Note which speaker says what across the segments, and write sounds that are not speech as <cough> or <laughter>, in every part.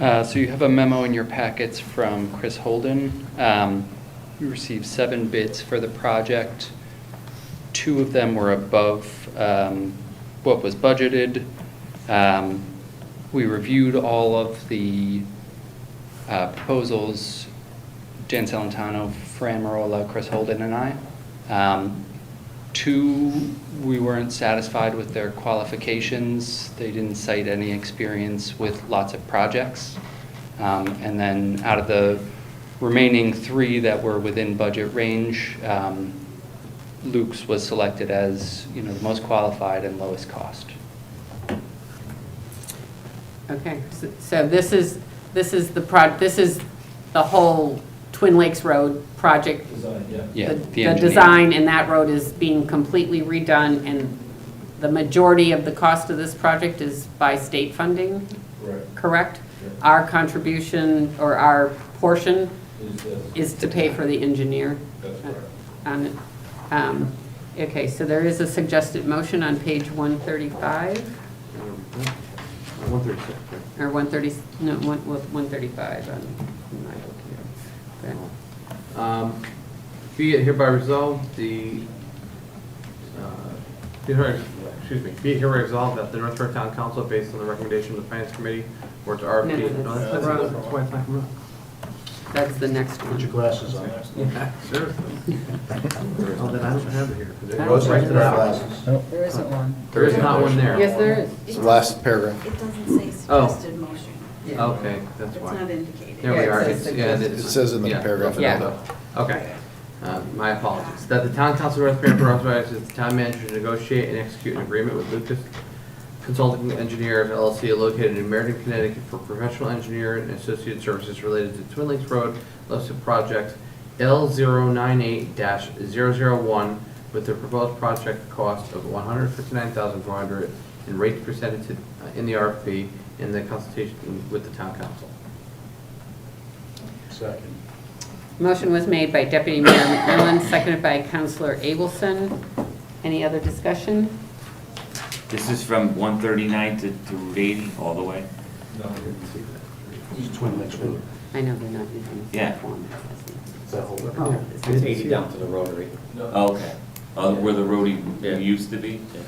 Speaker 1: Uh, So you have a memo in your packets from Chris Holden. Um, We received seven bids for the project. Two of them were above um, what was budgeted. Um, We reviewed all of the uh, proposals, Jan Salentano, Fran Marola, Chris Holden, and I. Um, Two, we weren't satisfied with their qualifications. They didn't cite any experience with lots of projects. Um, And then out of the remaining three that were within budget range, um, Luke's was selected as, you know, the most qualified and lowest cost.
Speaker 2: Okay, so- so this is, this is the pro, this is the whole Twin Lakes Road project.
Speaker 3: Design, yeah.
Speaker 1: Yeah,
Speaker 2: The-
Speaker 1: the
Speaker 2: The
Speaker 1: engineer.
Speaker 2: design in that road is being completely redone, and the majority of the cost of this project is by state funding,
Speaker 3: Right.
Speaker 2: correct?
Speaker 3: Yeah.
Speaker 2: Our contribution, or our portion,
Speaker 3: Is
Speaker 2: is
Speaker 3: this,
Speaker 2: to pay for the engineer.
Speaker 3: that's correct.
Speaker 2: on it. Um, Okay, so there is a suggested motion on page 135.
Speaker 4: One thirty-six, right?
Speaker 2: Or 130, no, one- well, 135 on my book here. Okay.
Speaker 4: Um, Be it hereby resolved, the, uh, be it hereby- excuse me, be it hereby resolved that the North Bergen Town Council, based on the recommendation of the Finance Committee, works RFP.
Speaker 2: No, no,
Speaker 4: No,
Speaker 2: that's
Speaker 4: that's
Speaker 3: the
Speaker 4: not-
Speaker 3: wrong-
Speaker 4: that's why it's not coming up.
Speaker 2: That's the next one.
Speaker 3: glasses on.
Speaker 4: Yeah, <laughs> seriously. Oh, then I don't have it here. 'cause it
Speaker 2: I don't
Speaker 4: goes right
Speaker 2: think
Speaker 4: to
Speaker 2: there's
Speaker 4: that.
Speaker 5: There isn't one.
Speaker 4: There is not one there.
Speaker 2: Yes, there is.
Speaker 6: It's the last paragraph.
Speaker 7: It doesn't say suggested motion.
Speaker 4: Okay, that's
Speaker 7: It's
Speaker 4: why.
Speaker 7: not indicated.
Speaker 4: Oh. There we
Speaker 2: Yeah, it
Speaker 4: are.
Speaker 2: says
Speaker 4: It's- yeah,
Speaker 2: suggested.
Speaker 4: it's-
Speaker 6: It says in the
Speaker 4: yeah,
Speaker 6: paragraph
Speaker 4: yeah.
Speaker 2: above.
Speaker 4: Okay. Uh, My apologies. That the town council of North Branford authorizes the town manager to negotiate and execute an agreement with Lucas Consulting Engineers LLC located in Meriden, Connecticut for professional engineering and associated services related to Twin Lakes Road listed project L098-001 with the proposed project cost of $159,400 and rates presented to- uh, in the RFP in the consultation with the town council.
Speaker 3: Second.
Speaker 2: Motion was made by Deputy Mayor McMillan, seconded by Counselor Abelson. Any other discussion?
Speaker 8: This is from 139 to to 80 all the way?
Speaker 3: No, we didn't see that.
Speaker 9: It's Twin Lakes Road.
Speaker 2: I know they're not using the
Speaker 8: Yeah.
Speaker 2: same form. it
Speaker 9: It's that whole
Speaker 2: Oh.
Speaker 9: It's 80 down to the rotary.
Speaker 3: No.
Speaker 8: Oh, Okay. Uh, Where the road
Speaker 9: Yeah.
Speaker 8: used to be?
Speaker 2: says.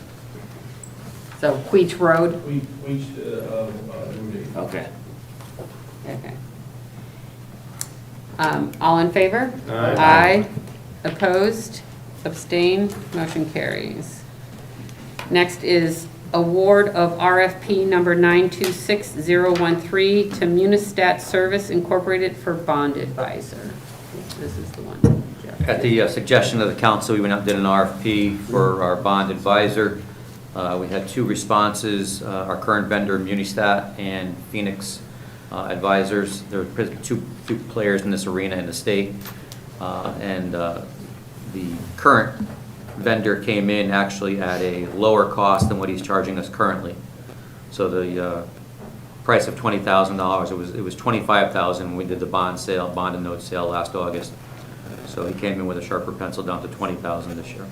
Speaker 2: So Queech Road,
Speaker 3: We, we, should, uh, uh, Route eight.
Speaker 8: Okay.
Speaker 2: okay. Um, All in favor?
Speaker 4: Aye.
Speaker 2: Aye. Opposed? Abstained? Motion carries. Next is award of RFP number 926013 to Munistat Service Incorporated for Bond Advisor. This is the one. Jeff.
Speaker 10: At the uh, suggestion of the council, we went out and did an RFP for our bond advisor. Uh, We had two responses, uh, our current vendor, Munistat, and Phoenix uh, Advisors. There are pres- two, two players in this arena in the state. Uh, And uh, the current vendor came in actually at a lower cost than what he's charging us currently. So the uh, price of twenty thousand dollars, it was, it was twenty-five thousand when we did the bond sale, bond and note sale last August. So he came in with a sharper pencil down to twenty thousand this year.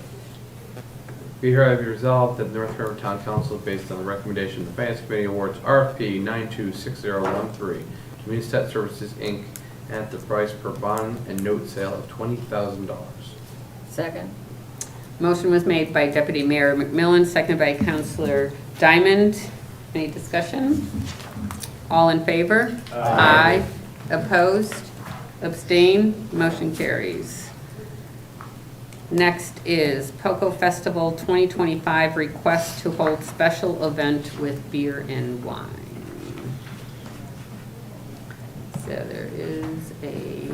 Speaker 4: Be hereby resolved that the North River Town Council, based on the recommendation of the Finance Committee, awards RFP 926013 to Munistat Services, Inc. at the price per bond and note sale of $20,000.
Speaker 5: Second.
Speaker 2: Motion was made by Deputy Mayor McMillan, seconded by Counselor Diamond. Any discussion? All in favor? Aye. Opposed? Abstain? Motion carries. Next is POCO Festival 2025 request to hold special event with beer and wine. So there is a,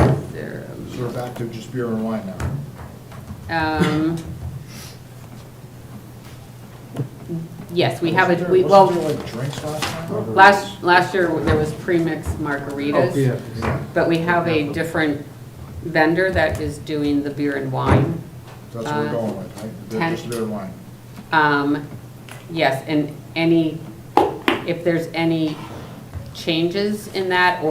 Speaker 2: is there a
Speaker 6: So we're back to just beer and wine now.
Speaker 2: Um, Yes, we have a, we,
Speaker 6: Wasn't there-
Speaker 2: well,
Speaker 6: wasn't there, like drinks last time? or-
Speaker 2: last, last year there was pre-mixed
Speaker 4: Oh,
Speaker 2: margaritas, but we have a different vendor that is doing the beer and wine.
Speaker 6: That's what we're
Speaker 2: uh,
Speaker 6: going with, right? Beer-
Speaker 2: ten-
Speaker 6: Just beer and wine.
Speaker 2: Um, yes, and any, if there's any changes in that